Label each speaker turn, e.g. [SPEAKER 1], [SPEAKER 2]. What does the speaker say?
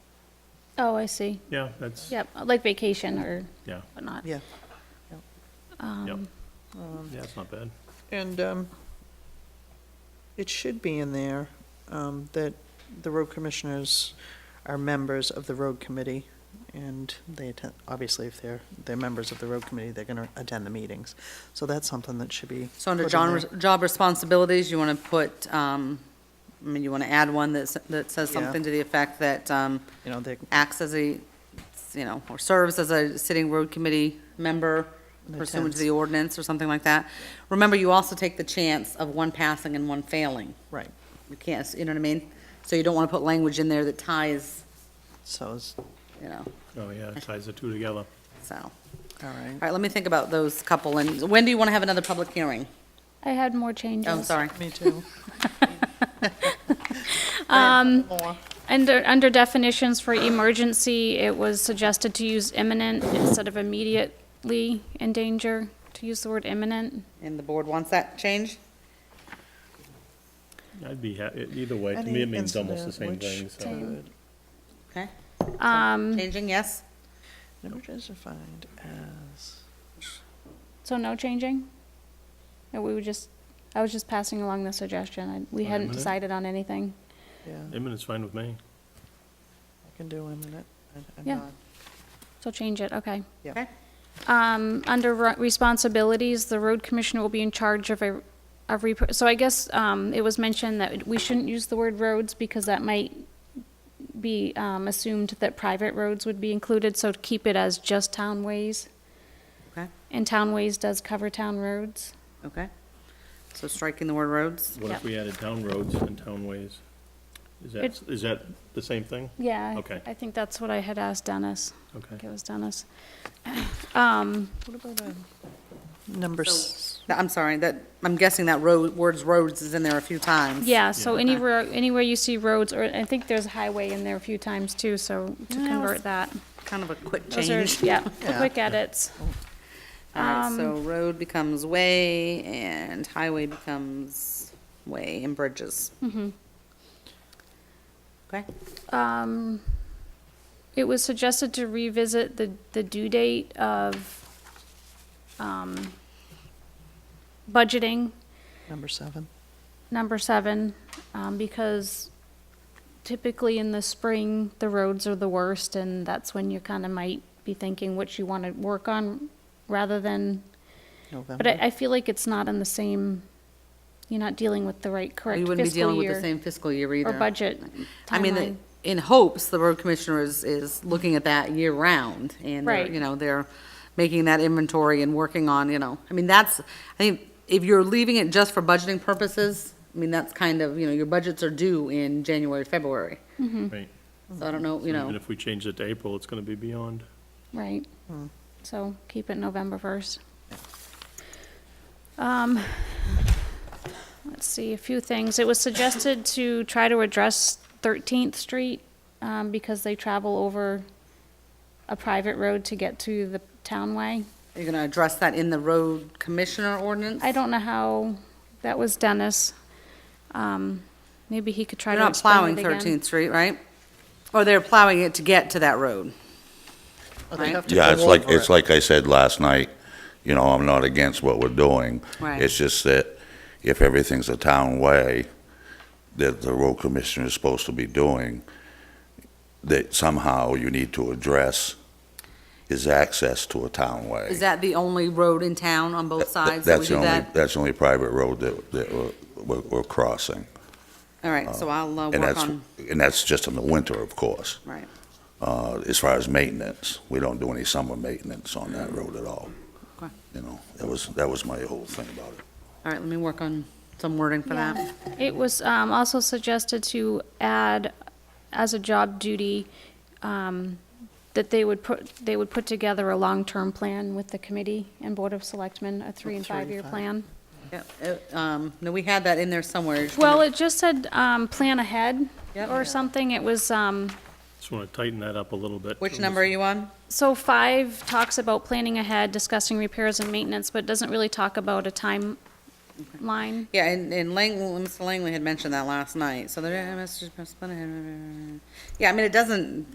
[SPEAKER 1] Oh, I see.
[SPEAKER 2] Yeah, that's,
[SPEAKER 1] Yep, like vacation or
[SPEAKER 2] yeah,
[SPEAKER 1] whatnot.
[SPEAKER 3] yeah.
[SPEAKER 2] yep.
[SPEAKER 1] Um,
[SPEAKER 2] Yeah, it's not bad.
[SPEAKER 3] And um, it should be in there um, that the road commissioners are members of the road committee, and they attend, obviously, if they're, they're members of the road committee, they're gonna attend the meetings. So that's something that should be.
[SPEAKER 4] So under
[SPEAKER 3] put in
[SPEAKER 4] John,
[SPEAKER 3] there.
[SPEAKER 4] job responsibilities, you want to put, um, I mean, you want to add one that, s- that says
[SPEAKER 3] Yeah.
[SPEAKER 4] something to the effect that, um,
[SPEAKER 3] You know, they,
[SPEAKER 4] acts as a, you know, or serves as a sitting road committee member
[SPEAKER 3] And
[SPEAKER 4] pursuant to the
[SPEAKER 3] attends.
[SPEAKER 4] ordinance or something like that. Remember, you also take the chance of one passing and one failing.
[SPEAKER 3] right,
[SPEAKER 4] You can't, you know what I mean? So you don't want to put language in there that ties,
[SPEAKER 3] so it's,
[SPEAKER 4] you know,
[SPEAKER 2] Oh, yeah, it ties the two together.
[SPEAKER 4] so. All
[SPEAKER 3] all right.
[SPEAKER 4] right, let me think about those couple, and when do you want to have another public hearing?
[SPEAKER 1] I had more changes.
[SPEAKER 4] Oh, sorry.
[SPEAKER 3] Me too.
[SPEAKER 1] Under, under definitions for emergency, it was suggested to use imminent instead of immediately in danger, to use the word imminent.
[SPEAKER 4] And the board wants that changed?
[SPEAKER 2] I'd be happy, either way, to me, it means almost the same
[SPEAKER 3] Any
[SPEAKER 2] thing,
[SPEAKER 3] incident
[SPEAKER 2] so.
[SPEAKER 3] which could-
[SPEAKER 4] Okay,
[SPEAKER 1] Um,
[SPEAKER 4] changing, yes?
[SPEAKER 3] Number is defined as,
[SPEAKER 1] so no changing? Or we were just, I was just passing along the suggestion. I- We
[SPEAKER 2] On
[SPEAKER 1] hadn't
[SPEAKER 2] imminent?
[SPEAKER 1] decided on anything.
[SPEAKER 3] yeah,
[SPEAKER 2] Imminent's fine with me.
[SPEAKER 3] I can do in a minute. I- I'm
[SPEAKER 1] Yeah.
[SPEAKER 3] not-
[SPEAKER 1] So change it, okay.
[SPEAKER 3] Yeah.
[SPEAKER 4] Okay.
[SPEAKER 1] Um, under ro- responsibilities, the road commissioner will be in charge of a, of rep- so I guess, um, it was mentioned that we shouldn't use the word roads because that might be, um, assumed that private roads would be included, so to keep it as just townways.
[SPEAKER 4] Okay,
[SPEAKER 1] And townways does cover town roads.
[SPEAKER 4] okay. So striking the word roads?
[SPEAKER 2] What
[SPEAKER 1] Yep.
[SPEAKER 2] if we added town roads and townways? Is that,
[SPEAKER 1] It-
[SPEAKER 2] is that the same thing?
[SPEAKER 1] Yeah. I-
[SPEAKER 2] Okay.
[SPEAKER 1] I think that's what I had asked Dennis. I think
[SPEAKER 2] Okay.
[SPEAKER 1] it was Dennis. Um,
[SPEAKER 3] What about, um, number, s-
[SPEAKER 4] Th- I'm sorry, that, I'm guessing that road, words roads is in there a few times.
[SPEAKER 1] yeah, so
[SPEAKER 2] Yeah.
[SPEAKER 1] any ro- anywhere you see roads, or I think there's highway in there a few times too, so to
[SPEAKER 4] Yeah,
[SPEAKER 1] convert
[SPEAKER 4] let's-
[SPEAKER 1] that.
[SPEAKER 4] Kind of a quick
[SPEAKER 1] Those are-
[SPEAKER 4] change.
[SPEAKER 1] Yeah, the
[SPEAKER 3] Yeah.
[SPEAKER 1] quick edits.
[SPEAKER 4] All right, so
[SPEAKER 1] Um,
[SPEAKER 4] road becomes way and highway becomes way and bridges.
[SPEAKER 1] Mm-hmm.
[SPEAKER 4] Okay,
[SPEAKER 1] Um, It was suggested to revisit the, the due date of um, budgeting,
[SPEAKER 3] number seven.
[SPEAKER 1] number seven, um, because typically in the spring, the roads are the worst, and that's when you kind of might be thinking what you want to work on rather than, but I,
[SPEAKER 3] November.
[SPEAKER 1] I feel like it's not in the same, you're not dealing with the right, correct fiscal
[SPEAKER 4] we
[SPEAKER 1] year.
[SPEAKER 4] wouldn't be dealing with the same fiscal year either.
[SPEAKER 1] Or budget
[SPEAKER 4] I mean,
[SPEAKER 1] timeline.
[SPEAKER 4] the- in hopes, the road commissioner is, is looking at that year-round, and, they're,
[SPEAKER 1] Right.
[SPEAKER 4] you know, they're making that inventory and working on, you know, I mean, that's, I think, if you're leaving it just for budgeting purposes, I mean, that's kind of, you know, your budgets are due in January, February,
[SPEAKER 2] Right.
[SPEAKER 4] so I don't know, you
[SPEAKER 2] Even
[SPEAKER 4] know,
[SPEAKER 2] if we change it to April, it's gonna be beyond.
[SPEAKER 1] Right.
[SPEAKER 4] Hmm.
[SPEAKER 1] So keep it November 1st. Um, Let's see, a few things. It was suggested to try to address 13th Street um, because they travel over a private road to get to the townway.
[SPEAKER 4] you're gonna address that in the road commissioner ordinance?
[SPEAKER 1] I don't know how, that was Dennis. Um, Maybe he could try
[SPEAKER 4] They're
[SPEAKER 1] to
[SPEAKER 4] not
[SPEAKER 1] explain
[SPEAKER 4] plowing
[SPEAKER 1] it again.
[SPEAKER 4] Thirteenth Street, right? Or they're plowing it to get to that road?
[SPEAKER 3] Oh, they
[SPEAKER 4] Right.
[SPEAKER 3] have to
[SPEAKER 5] Yeah,
[SPEAKER 3] go
[SPEAKER 5] it's like,
[SPEAKER 3] over
[SPEAKER 5] it's
[SPEAKER 3] it.
[SPEAKER 5] like I said last night, you know, I'm not against what we're doing.
[SPEAKER 4] Right.
[SPEAKER 5] It's just that if everything's a town way that the road commissioner is supposed to be doing, that somehow you need to address is access to a town way.
[SPEAKER 4] Is that the only road in town on both sides? that we
[SPEAKER 5] That's
[SPEAKER 4] do
[SPEAKER 5] the only,
[SPEAKER 4] that?
[SPEAKER 5] that's the only private road that, that we're- we're, we're crossing.
[SPEAKER 4] All right, so I'll uh,
[SPEAKER 5] And
[SPEAKER 4] work
[SPEAKER 5] that's,
[SPEAKER 4] on,
[SPEAKER 5] and that's just in the winter, of course.
[SPEAKER 4] right.
[SPEAKER 5] Uh, as far as maintenance, we don't do any summer maintenance on that road at all.
[SPEAKER 4] Okay.
[SPEAKER 5] You know, that was, that was my whole thing about it.
[SPEAKER 4] All right, let me work on some wording for
[SPEAKER 1] Yeah.
[SPEAKER 4] that.
[SPEAKER 1] It was um, also suggested to add as a job duty um, that they would put, they would put together a long-term plan with the committee and Board of Selectmen, a three and
[SPEAKER 3] Three and
[SPEAKER 1] five-year
[SPEAKER 3] five.
[SPEAKER 1] plan.
[SPEAKER 4] Yeah, uh, um, No, we had that in there somewhere. Just
[SPEAKER 1] Well,
[SPEAKER 4] wanna-
[SPEAKER 1] it just said, um, plan ahead
[SPEAKER 4] Yep.
[SPEAKER 1] or something. It was, um,
[SPEAKER 2] Just wanna tighten that up a little bit.
[SPEAKER 4] Which number are you on?
[SPEAKER 1] so five talks about planning ahead, discussing repairs and maintenance, but doesn't really talk about a timeline.
[SPEAKER 4] Yeah, and, and Langley, Mr. Langley had mentioned that last night, so there, yeah, I mean, it doesn't,